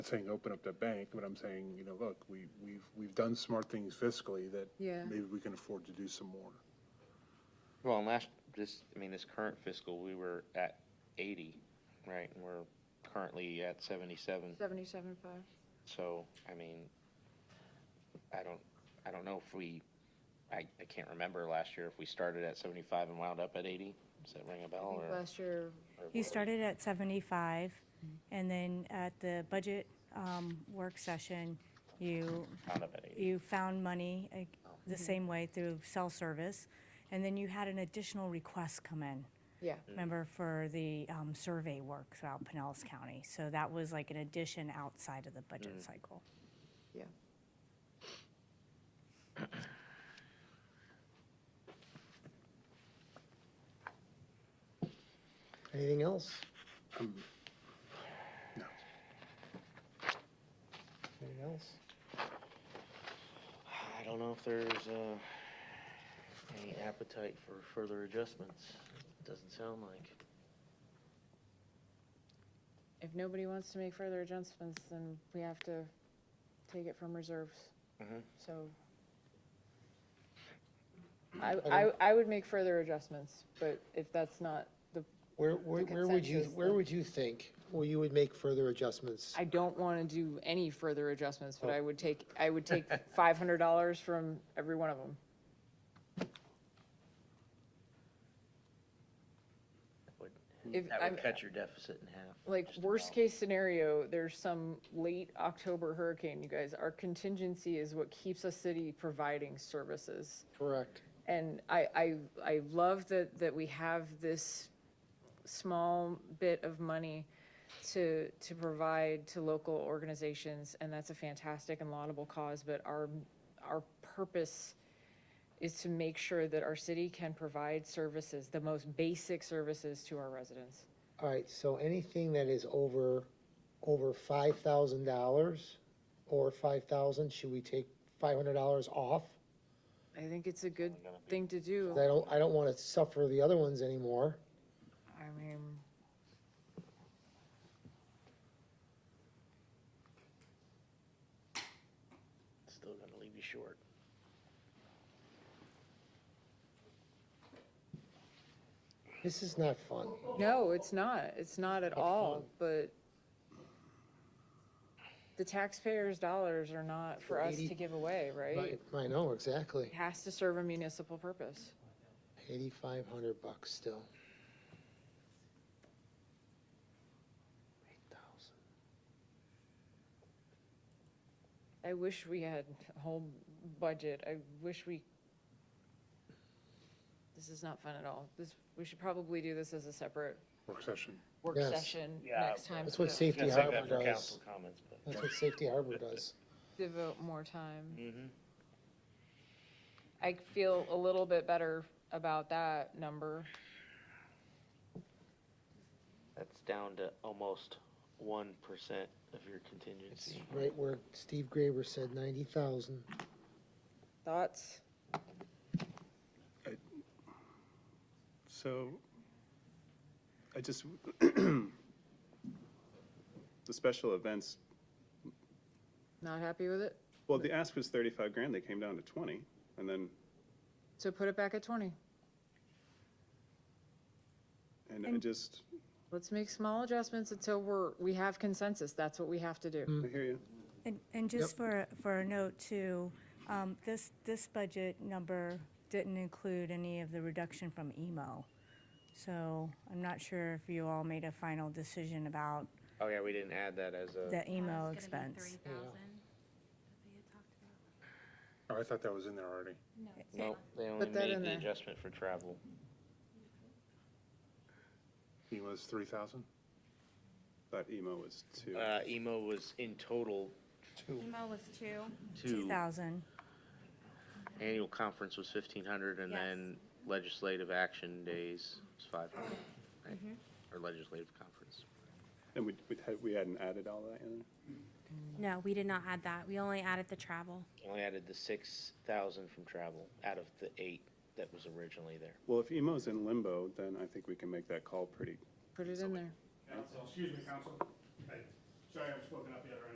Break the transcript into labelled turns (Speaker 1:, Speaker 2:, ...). Speaker 1: not saying open up the bank, but I'm saying, you know, look, we, we've, we've done smart things fiscally that
Speaker 2: Yeah.
Speaker 1: maybe we can afford to do some more.
Speaker 3: Well, and last, this, I mean, this current fiscal, we were at eighty, right, and we're currently at seventy-seven,
Speaker 2: Seventy-seven five.
Speaker 3: so, I mean, I don't, I don't know if we, I, I can't remember last year if we started at seventy-five and wound up at eighty, does that ring a
Speaker 2: I
Speaker 4: Oh,
Speaker 3: bell,
Speaker 2: think
Speaker 3: or?
Speaker 2: last year,
Speaker 3: or
Speaker 5: You
Speaker 3: what?
Speaker 5: started at 75, and then at the budget um, work session, you,
Speaker 3: Wound up at eighty,
Speaker 5: you found money uh, the same way through cell service, and then you had an additional request come in,
Speaker 2: yeah,
Speaker 5: remember, for the um, survey work throughout Pinellas County. So that was like an addition outside of the budget cycle.
Speaker 2: yeah.
Speaker 6: Anything else?
Speaker 1: No.
Speaker 6: Anything else?
Speaker 4: I don't know if there's, uh, any appetite for further adjustments. Doesn't sound like.
Speaker 2: If nobody wants to make further adjustments, then we have to take it from reserves.
Speaker 4: Mm-hmm.
Speaker 3: Mhm.
Speaker 2: So. I, I, I would make further adjustments, but if that's not the,
Speaker 6: Where, where,
Speaker 2: The
Speaker 6: where would you,
Speaker 2: consensus
Speaker 6: where
Speaker 2: then.
Speaker 6: would you think, well, you would make further adjustments?
Speaker 2: I don't want to do any further adjustments, but I would take, I would take five hundred dollars from every one of them.
Speaker 4: Would-
Speaker 2: If
Speaker 4: That
Speaker 2: I'm-
Speaker 4: would cut your deficit in half.
Speaker 2: like
Speaker 4: just
Speaker 2: worst
Speaker 4: about.
Speaker 2: case scenario, there's some late October hurricane, you guys, our contingency is what keeps a city providing services.
Speaker 6: Correct.
Speaker 2: And I, I, I love that, that we have this small bit of money to, to provide to local organizations, and that's a fantastic and laudable cause, but our, our purpose is to make sure that our city can provide services, the most basic services to our residents.
Speaker 6: All right, so anything that is over, over five thousand dollars or five thousand, should we take five hundred dollars off?
Speaker 2: I think it's a good thing to do.
Speaker 6: 'Cause I don't, I don't wanna suffer the other ones anymore.
Speaker 2: I mean,
Speaker 4: Still gonna leave you short.
Speaker 6: This is not fun.
Speaker 2: no, it's not. It's not at all, but the taxpayers' dollars are not for us to give away, right?
Speaker 6: I know, exactly.
Speaker 2: It has to serve a municipal purpose.
Speaker 6: Eighty-five hundred bucks still. Eight thousand.
Speaker 2: I wish we had a whole budget. I wish we, this is not fun at all. This, we should probably do this as a separate
Speaker 1: Work session.
Speaker 2: work
Speaker 6: Yes.
Speaker 2: session
Speaker 4: Yeah,
Speaker 2: next time.
Speaker 6: That's what
Speaker 2: so
Speaker 6: Safety
Speaker 4: Gonna save
Speaker 6: Harbor
Speaker 4: that for
Speaker 6: does.
Speaker 4: council comments, but.
Speaker 6: That's what Safety Harbor does.
Speaker 2: Devote more time.
Speaker 4: Mhm.
Speaker 2: I feel a little bit better about that number.
Speaker 4: That's down to almost one percent of your contingency.
Speaker 6: Right where Steve Graber said ninety thousand.
Speaker 2: Thoughts?
Speaker 7: So, I just, the special events,
Speaker 2: Not happy with it?
Speaker 7: well, the ask was thirty-five grand, they came down to twenty, and then,
Speaker 2: So put it back at twenty.
Speaker 7: and I just,
Speaker 2: Let's make small adjustments until we're, we have consensus. That's what we have to do.
Speaker 7: I hear you.
Speaker 5: And, and just for, for a note too, um, this, this budget number didn't include any of the reduction from emo. So I'm not sure if you all made a final decision about
Speaker 3: Oh, yeah, we didn't add that as a,
Speaker 5: the emo
Speaker 8: That's Uh, gonna be
Speaker 5: expense.
Speaker 8: 3,000 that we had talked about.
Speaker 1: Oh, I thought that was in there already.
Speaker 8: No, it's
Speaker 3: no, they only
Speaker 2: Put that in
Speaker 3: made the
Speaker 2: there.
Speaker 3: adjustment for travel.
Speaker 1: He was three thousand?
Speaker 7: Thought emo was two.
Speaker 3: Uh, emo was in total
Speaker 8: email was two.
Speaker 3: two,
Speaker 5: 2,000.
Speaker 3: annual conference was fifteen hundred, and
Speaker 8: Yes.
Speaker 3: then legislative action days was five hundred, right? Or legislative conference.
Speaker 7: And we, we had- we hadn't added all that in?
Speaker 8: No, we did not add that. We only added the travel.
Speaker 3: Only added the six thousand from travel out of the eight that was originally there.
Speaker 7: Well, if emo's in limbo, then I think we can make that call pretty
Speaker 2: Put it in there.
Speaker 9: Council, excuse me, council. Sorry, I'm spoken up yet, right?